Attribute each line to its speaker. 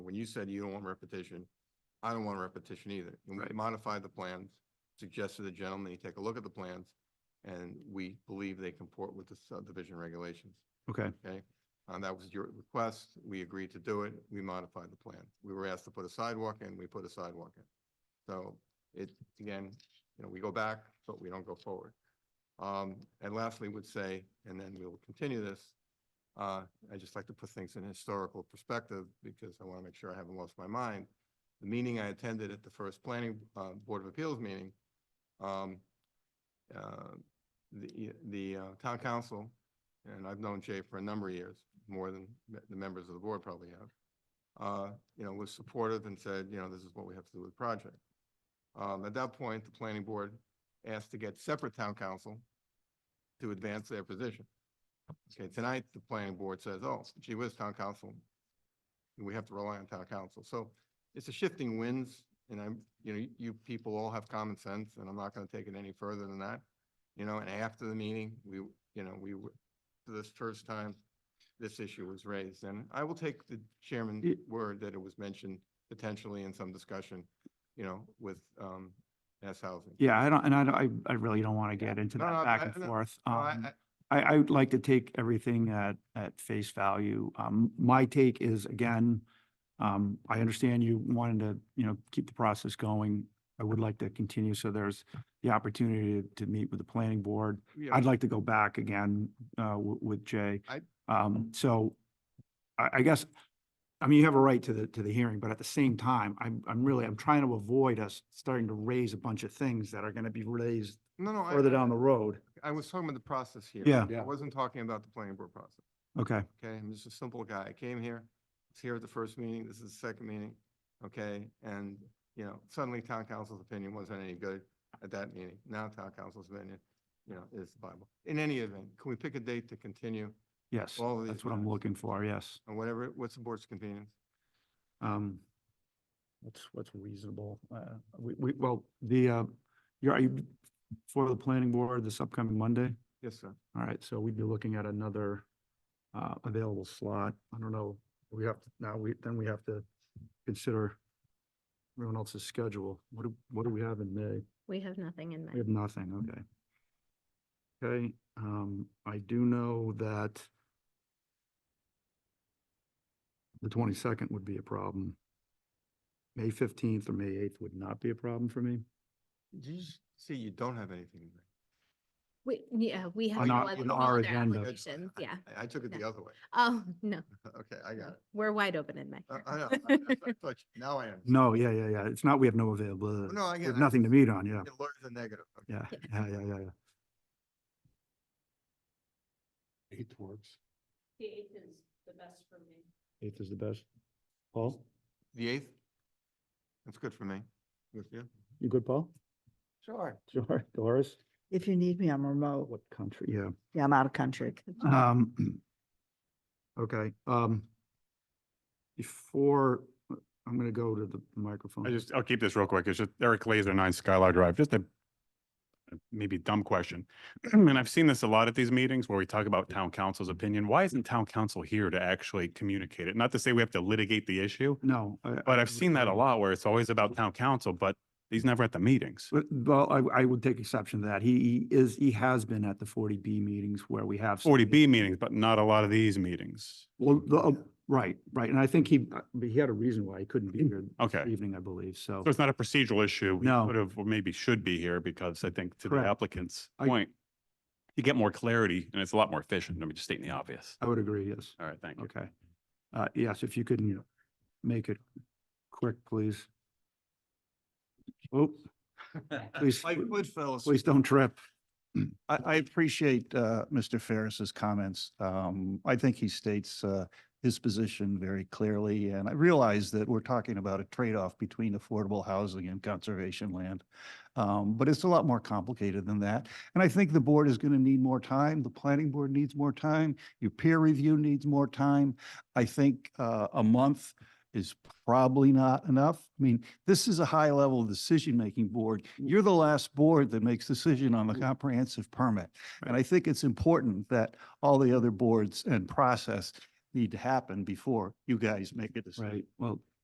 Speaker 1: when you said you don't want repetition, I don't want repetition either. And we
Speaker 2: Right.
Speaker 1: modified the plans, suggested the gentleman, he take a look at the plans, and we believe they comport with the subdivision regulations.
Speaker 2: Okay,
Speaker 1: And Uh, that was your request. We agreed to do it. We modified the plan. We were asked to put a sidewalk in, we put a sidewalk in. So it, again, you know, we go back, but we don't go forward. Um, and lastly would say, and then we will continue this, uh, I just like to put things in historical perspective because I want to make sure I haven't lost my mind. The meeting I attended at the first planning, uh, Board of Appeals meeting, um, uh, the, the uh, town council and I've known Jay for a number of years, more than me- the members of the board probably have, uh, you know, was supportive and said, you know, this is what we have to do with the project. Um, At that point, the planning board asked to get separate town council to advance their position. Okay, tonight, the planning board says, oh, gee whiz, town council, we have to rely on town council. So it's a shifting winds, and I'm, you know, you people all have common sense, and I'm not going to take it any further than that. You know, and after the meeting, we, you know, we, were- for this first time, this issue was raised. And I will take the chairman's
Speaker 2: Y-
Speaker 1: word that it was mentioned potentially in some discussion, you know, with um, S Housing.
Speaker 2: yeah, I don't, and I, don't- I, I really don't want to get into
Speaker 1: No, no,
Speaker 2: that back
Speaker 1: I-
Speaker 2: and
Speaker 1: no,
Speaker 2: forth.
Speaker 1: No, I-
Speaker 2: Um,
Speaker 1: I-
Speaker 2: I, I would like to take everything at, at face value. Um, my take is, again, um, I understand you wanted to, you know, keep the process going. I would like to continue, so there's the opportunity to meet with the planning board.
Speaker 1: you know,
Speaker 2: I'd like to go back again, uh, w- with Jay.
Speaker 1: I-
Speaker 2: Um, so I, I guess, I mean, you have a right to the, to the hearing, but at the same time, I'm, I'm really, I'm trying to avoid us starting to raise a bunch of things that are gonna be raised
Speaker 1: No, no. I-
Speaker 2: further
Speaker 1: I-
Speaker 2: down the road.
Speaker 1: I was talking about the process here.
Speaker 2: Yeah.
Speaker 1: I
Speaker 3: Yeah.
Speaker 1: wasn't talking about the planning board process,
Speaker 2: Okay,
Speaker 1: okay? I'm just a simple guy. I came here, was here at the first meeting, this is the second meeting, okay? And, you know, suddenly town council's opinion wasn't any good at that meeting. Now town council's opinion, you know, is the Bible. In any event, can we pick a date to continue
Speaker 2: yes,
Speaker 1: All of
Speaker 2: that's
Speaker 1: these
Speaker 2: what I'm
Speaker 1: matters.
Speaker 2: looking for, yes.
Speaker 1: on whatever, what's the board's convenience?
Speaker 2: Um, what's, what's reasonable? Uh, we, we, well, the, uh, you're, are you for the planning board this upcoming Monday?
Speaker 1: Yes, sir.
Speaker 2: All right, so we'd be looking at another uh, available slot. I don't know, we have, to now we, then we have to consider everyone else's schedule. What do, what do we have in May?
Speaker 4: We have nothing in
Speaker 2: We
Speaker 4: mind.
Speaker 2: have nothing, okay. Okay, um, I do know that the twenty-second would be a problem. May fifteenth or May eighth would not be a problem for me.
Speaker 1: Did you s- see you don't have anything in there?
Speaker 4: We, yeah, we have
Speaker 2: On
Speaker 4: no
Speaker 2: our-
Speaker 4: other
Speaker 2: on
Speaker 4: no
Speaker 2: our
Speaker 4: other
Speaker 2: agenda.
Speaker 1: That's-
Speaker 4: applications, yeah.
Speaker 1: I I took it
Speaker 4: No.
Speaker 1: the other way.
Speaker 4: Oh, no,
Speaker 1: Okay, I got
Speaker 4: no,
Speaker 1: it.
Speaker 4: we're wide open in May.
Speaker 1: I, I know. Uh, I- I thought you- Now I am.
Speaker 2: No, yeah, yeah, yeah. It's not, we have no availability.
Speaker 1: No, I
Speaker 2: We
Speaker 1: get
Speaker 2: have
Speaker 1: it.
Speaker 2: nothing to meet on, yeah.
Speaker 1: It lures the negative. Okay.
Speaker 2: Yeah, yeah, yeah, yeah, yeah.
Speaker 3: Eighth works.
Speaker 5: The eighth is the best for me.
Speaker 2: Eighth is the best. Paul,
Speaker 1: The eighth? That's good for me. Good for you?
Speaker 2: you good, Paul?
Speaker 3: Sure.
Speaker 2: Sure. Doris?
Speaker 6: If you need me, I'm remote.
Speaker 2: What country? Yeah.
Speaker 6: Yeah, I'm out of country.
Speaker 2: Um, okay, um, before, I'm gonna go to the microphone.
Speaker 3: I just, I'll keep this real quick. It's just Eric Laser, nine Skylar Drive, just a a maybe dumb question. And I've seen this a lot at these meetings where we talk about town council's opinion. Why isn't town council here to actually communicate it? Not to say we have to litigate the issue,
Speaker 2: No. I-
Speaker 3: but
Speaker 2: I
Speaker 3: I've seen that a
Speaker 2: would-
Speaker 3: lot where it's always about town council, but he's never at the meetings.
Speaker 2: But- Well, I, I would take exception to that. He he is, he has been at the forty B meetings where we have.
Speaker 3: Forty
Speaker 2: stated-
Speaker 3: B meetings, but not a lot of these meetings.
Speaker 2: Well, the- uh, right, right. And I think he, uh, but he had a reason why he couldn't be here
Speaker 3: Okay.
Speaker 2: this evening, I believe, so.
Speaker 3: So it's not a procedural issue. We
Speaker 2: No.
Speaker 3: Could have, or maybe should be here because I think to the
Speaker 2: Correct.
Speaker 3: applicant's
Speaker 2: I-
Speaker 3: point, you get more clarity and it's a lot more efficient. Let me just stating the obvious.
Speaker 2: I would agree, yes.
Speaker 3: All right, thank you.
Speaker 2: Okay. Uh, yes, if you could make it quick, please. Oh, please.
Speaker 1: Like Goodfellas.
Speaker 2: Please don't trip.
Speaker 7: I, I appreciate uh, Mr. Ferris's comments. Um, I think he states uh, his position very clearly, and I realize that we're talking about a trade-off between affordable housing and conservation land. Um, But it's a lot more complicated than that. And I think the board is going to need more time. The planning board needs more time. Your peer review needs more time. I think uh, a month is probably not enough. I mean, this is a high-level decision-making board. You're the last board that makes decision on the comprehensive permit. And I think it's important that all the other boards and process need to happen before you guys make a decision.
Speaker 2: Right, well,